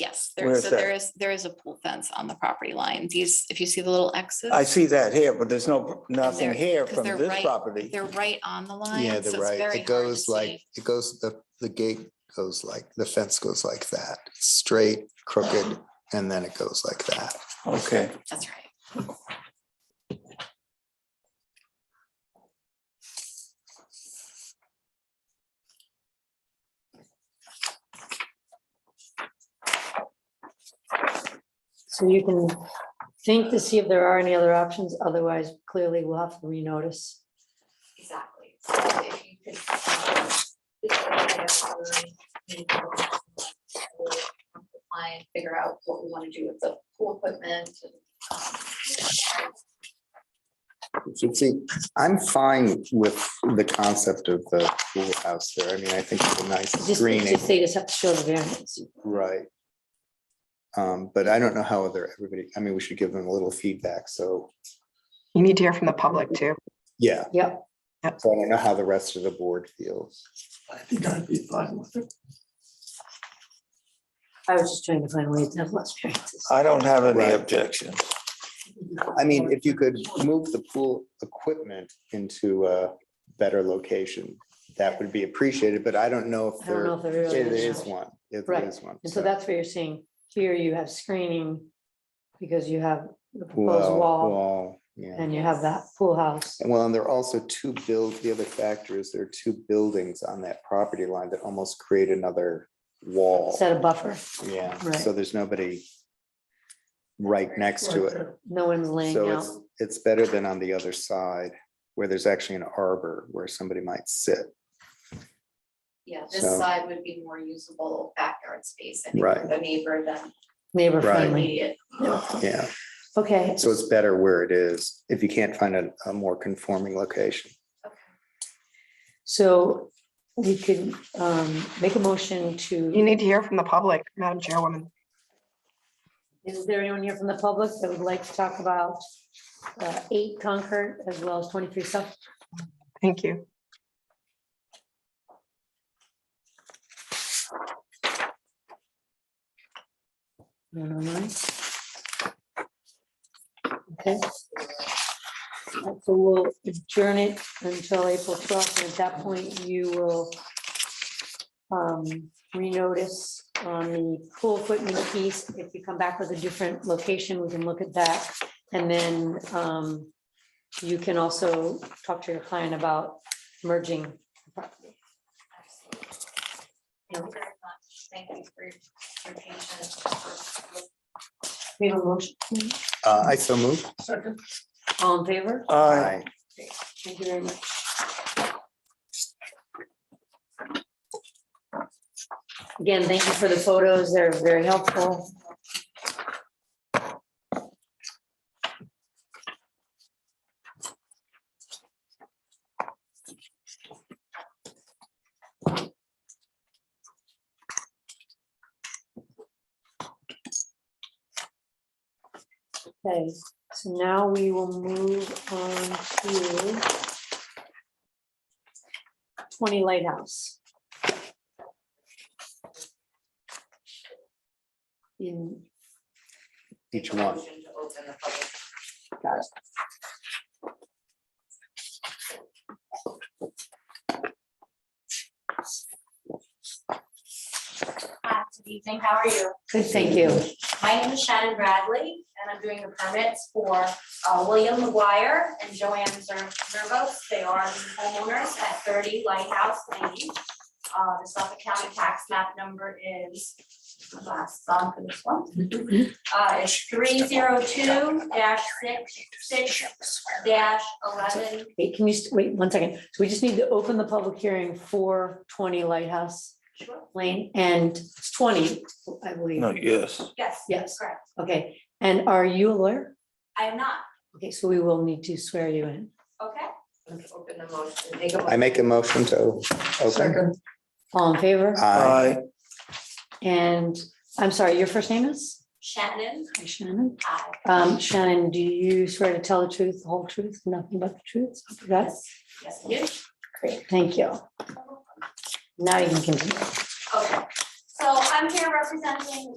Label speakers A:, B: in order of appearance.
A: yes.
B: Where
A: There,
B: is
A: so there
B: that?
A: is, there is a pool fence on the property line. These, if you see the little X's.
B: I see that here, but there's no, nothing
A: they're-
B: here
A: 'cause
B: from
A: they're
B: this
A: right-
B: property.
A: They're right on the line.
C: Yeah,
A: so
C: they're
A: it's
C: right.
A: very hard
C: It
A: to
C: goes
A: see.
C: like, it goes, the, the gate goes like, the fence goes like that, straight, crooked, and then it goes like that.
B: Okay,
A: That's right.
D: So you can think to see if there are any other options, otherwise clearly we'll have to renotice.
A: Exactly. So if you could, um, this is what I guess I would need to work on, we'll Comply and figure out what we want to do with the pool equipment. and, um,
C: So see, I'm fine with the concept of the pool house there. I mean, I think it's a nice
D: Just,
C: greening,
D: just they just have to show the variance.
C: right? Um, but I don't know how other, everybody, I mean, we should give them a little feedback, so,
E: You need to hear from the public too.
C: yeah.
D: Yep.
E: Yep.
C: So I don't know how the rest of the board feels.
F: I think I'd be fine with it.
D: I was just trying to find ways to have less variances.
B: I don't have any
C: Right.
B: objection.
C: Uh, I mean, if you could move the pool equipment into a better location, that would be appreciated, but I don't know if
D: I don't know
C: there,
D: if there really
C: it
D: is.
C: is one. If
D: Right.
C: there is one.
D: And so that's where you're saying, here you have screening because you have the proposed
C: Well,
D: wall
C: wall, yeah.
D: and you have that pool house.
C: Well, and there are also two build, the other factor is there are two buildings on that property line that almost create another wall.
D: Set a buffer,
C: Yeah,
D: Right.
C: so there's nobody right next to it.
D: no one's laying
C: So
D: out.
C: it's, it's better than on the other side where there's actually an arbor where somebody might sit.
A: Yeah, this
C: So-
A: side would be more usable backyard space, I think,
C: Right.
A: for the neighbor than
D: Neighbor
C: Right.
D: friendly,
A: immediate.
C: Yeah,
D: okay.
C: so it's better where it is if you can't find a, a more conforming location.
D: So we could um make a motion
E: You
D: to,
E: need to hear from the public, Madam Chairwoman.
D: is there anyone here from the public that would like to talk about uh eight Concord as well as twenty-three South?
E: Thank you.
D: No, no, no. Okay. So we'll adjourn it until April twelfth, and at that point, you will um, renotice on the pool equipment piece. If you come back with a different location, we can look at that. And then um, you can also talk to your client about merging. the property.
A: Thank you very much. Thank you for your your patience.
D: We have a motion,
C: Uh, I so move.
F: Second.
D: all in favor?
B: I,
D: Thank you very much. Again, thank you for the photos. They're very helpful. Okay, so now we will move on to twenty Lighthouse. In,
C: Each one.
A: Motion to open the public
D: got it.
G: Hi, good evening, how are you?
D: Good, thank you.
G: My name is Shannon Bradley, and I'm doing the permits for uh, William McGuire and Joanne Zer- Zervos. They are the homeowners at thirty Lighthouse Lane. Uh, The Suffolk County tax map number is, last song for this one. Uh, It's three zero two dash six six dash eleven.
D: Wait, can you, st- wait one second. So we just need to open the public hearing for twenty Lighthouse Lane and it's twenty, I believe.
B: no, yes.
G: Yes,
D: Yes,
G: correct.
D: okay. And are you a lawyer?
G: I am not,
D: Okay, so we will need to swear you in.
G: okay?
A: Open the motion, make a
C: I make a motion to open.
F: Second.
D: All in favor?
B: Uh. I,
C: Aye.
D: And I'm sorry, your first name is?
G: Shannon,
D: Hi, Shannon.
G: hi.
D: Um, Shannon, do you swear to tell the truth, the whole truth, nothing but the truth? Yes.
G: Yes, you.
D: Great, thank you. Now you can continue.
G: Okay, so I'm here representing